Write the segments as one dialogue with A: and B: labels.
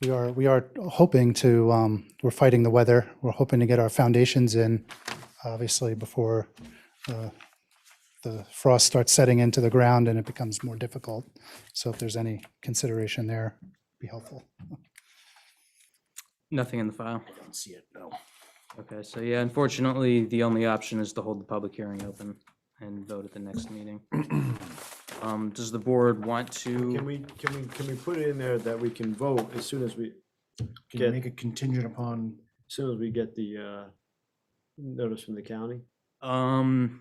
A: We are, we are hoping to, um, we're fighting the weather. We're hoping to get our foundations in, obviously, before uh, the frost starts setting into the ground and it becomes more difficult. So if there's any consideration there, be helpful.
B: Nothing in the file.
C: I don't see it, no.
B: Okay, so yeah, unfortunately, the only option is to hold the public hearing open and vote at the next meeting. Um, does the board want
D: Can
B: to,
D: we, can we, can we put it in there that we can vote as soon as we,
C: Can you
D: Get-
C: make it contingent upon,
D: as soon as we get the, uh, notice from the county?
B: um,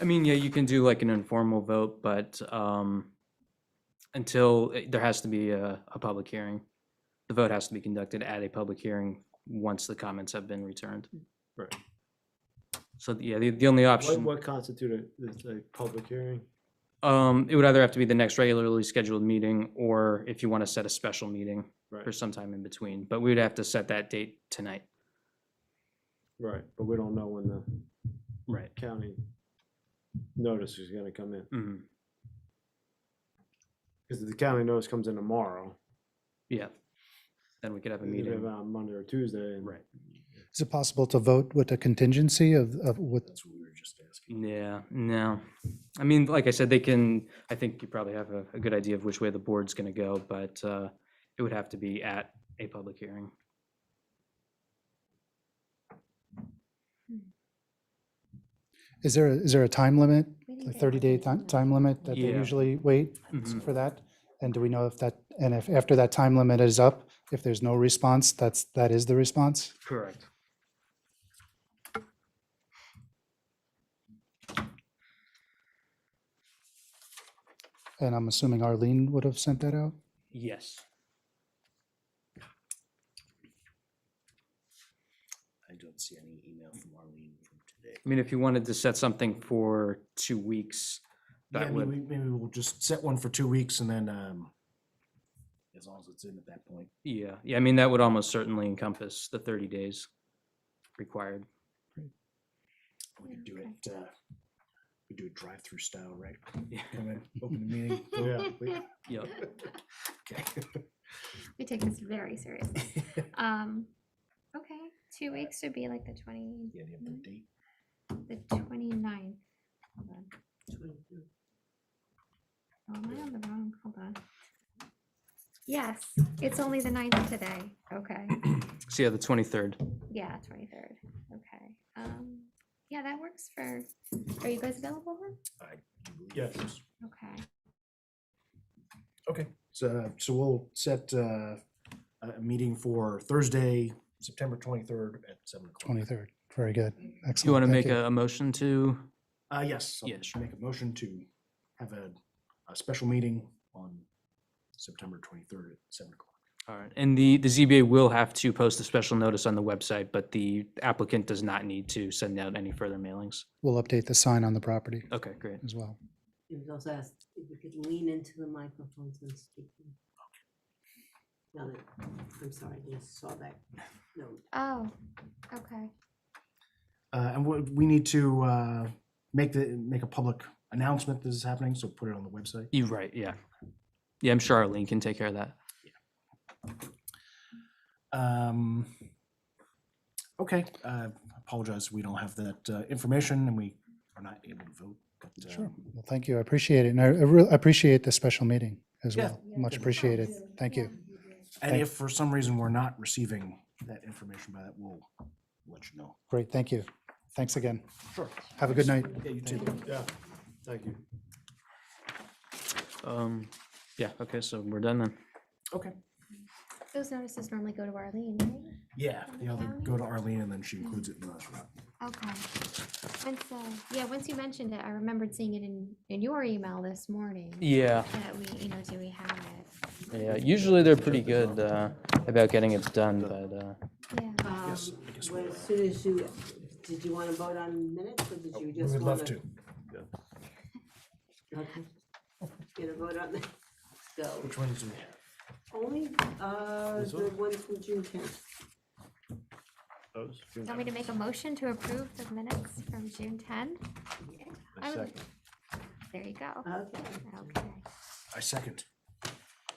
B: I mean, yeah, you can do like an informal vote, but, um, until, eh, there has to be a, a public hearing. The vote has to be conducted at a public hearing once the comments have been returned.
D: Right.
B: So, yeah, the, the only
D: What,
B: option.
D: what constitute a, is a public hearing?
B: Um, it would either have to be the next regularly scheduled meeting, or if you want to set a special meeting
D: Right,
B: for sometime in between, but we would have to set that date tonight.
D: right, but we don't know when the
B: Right.
D: county notice is gonna come in.
B: hmm
D: Cause if the county notice comes in tomorrow,
B: yeah. Then we could have a
D: it'll be
B: meeting.
D: on Monday or Tuesday. and-
B: Right.
A: Is it possible to vote with a contingency of, of what,
C: that's what we were just asking.
B: Yeah, no. I mean, like I said, they can, I think you probably have a, a good idea of which way the board's gonna go, but, uh, it would have to be at a public hearing.
A: is there, is there a time limit? A 30-day time, time limit that they
B: Yeah.
A: usually wait
B: Mhm.
A: for that? And do we know if that, and if after that time limit is up, if there's no response, that's, that is the response?
B: Correct.
A: And I'm assuming Arlene would have sent that out?
B: Yes.
C: I don't see any email from Arlene from today.
B: I mean, if you wanted to set something for two weeks,
C: Yeah,
B: that
C: I mean,
B: would,
C: we- maybe we'll just set one for two weeks and then, um, as long as it's in at that point.
B: yeah, yeah, I mean, that would almost certainly encompass the thirty days required.
C: We could do
E: Yeah,
C: it, uh, we do it drive-through style, right?
B: Yeah.
C: Come in, open the meeting. vote.
D: Yeah, we-
B: Yep.
C: Okay.
E: We take this very seriously. Um, okay, two weeks would be like the twenty,
C: Yeah, do you have the date?
E: the twenty-nine. Hold on. Oh, am I on the wrong? Hold on. Yes, it's only the ninth today. Okay,
B: So yeah, the twenty-third.
E: yeah, twenty-third. Okay. Um, yeah, that works for, are you guys available? then?
C: I do believe
D: Yes.
C: it is.
E: Okay.
C: Okay, so, so we'll set, uh, a, a meeting for Thursday, September twenty-third at seven o'clock.
A: 23rd. Very good. Excellent.
B: Do you want to
A: Thank
B: make a a motion to?
C: Uh, yes, I'll
B: Yeah,
C: just
B: sure.
C: make a motion to have a, a special meeting on September twenty-third at seven o'clock.
B: All right, and the, the ZBA will have to post a special notice on the website, but the applicant does not need to send out any further mailings.
A: We'll update the sign on the property
B: Okay, great.
A: as well.
F: He was also asked if you could lean into the microphone and speak. Now that, I'm sorry, I just saw that. No,
E: Oh, okay.
C: Uh, and we, we need to, uh, make the, make a public announcement this is happening, so put it on the website.
B: You're right, yeah. Yeah, I'm sure Arlene can take care of that.
C: Um, okay, uh, apologize, we don't have that, uh, information and we are not able to vote, but, uh,
A: Sure. Well, thank you. I appreciate it. And I I really appreciate the special meeting as
C: Yeah.
A: well. Much appreciated. Thank you.
C: and
A: Thank-
C: if for some reason we're not receiving that information by that, we'll let you know.
A: Great, thank you. Thanks again.
C: Sure.
A: Have a good night.
C: Yeah, you too.
D: Yeah, thank you.
B: Um, yeah, okay, so we're done then.
C: Okay.
E: Those notices normally go to Arlene, right?
C: Yeah,
E: From
C: the
E: the
C: other,
E: county?
C: go to Arlene and then she includes it in the restaurant.
E: Okay. Once, uh, yeah, once you mentioned it, I remembered seeing it in, in your email this morning.
B: Yeah,
E: That we, you know, do we have it?
B: yeah, usually they're pretty good, uh, about getting it done, but, uh,
E: Yeah.
F: um,
C: Yes, I guess we
F: well,
C: will.
F: as soon as you, did you want to vote on minutes or did you
C: Oh, We
F: just
C: would
F: want
C: love to.
F: Get a vote on that? Go.
C: Which ones do we have?
F: Only, uh,
D: This
F: the one from June tenth.
D: Those?
E: Want me to make a motion to approve the minutes from June 10?
D: A
E: I would-
D: second.
F: Uh,
E: There you go.
F: Okay.
E: Okay.
C: I second.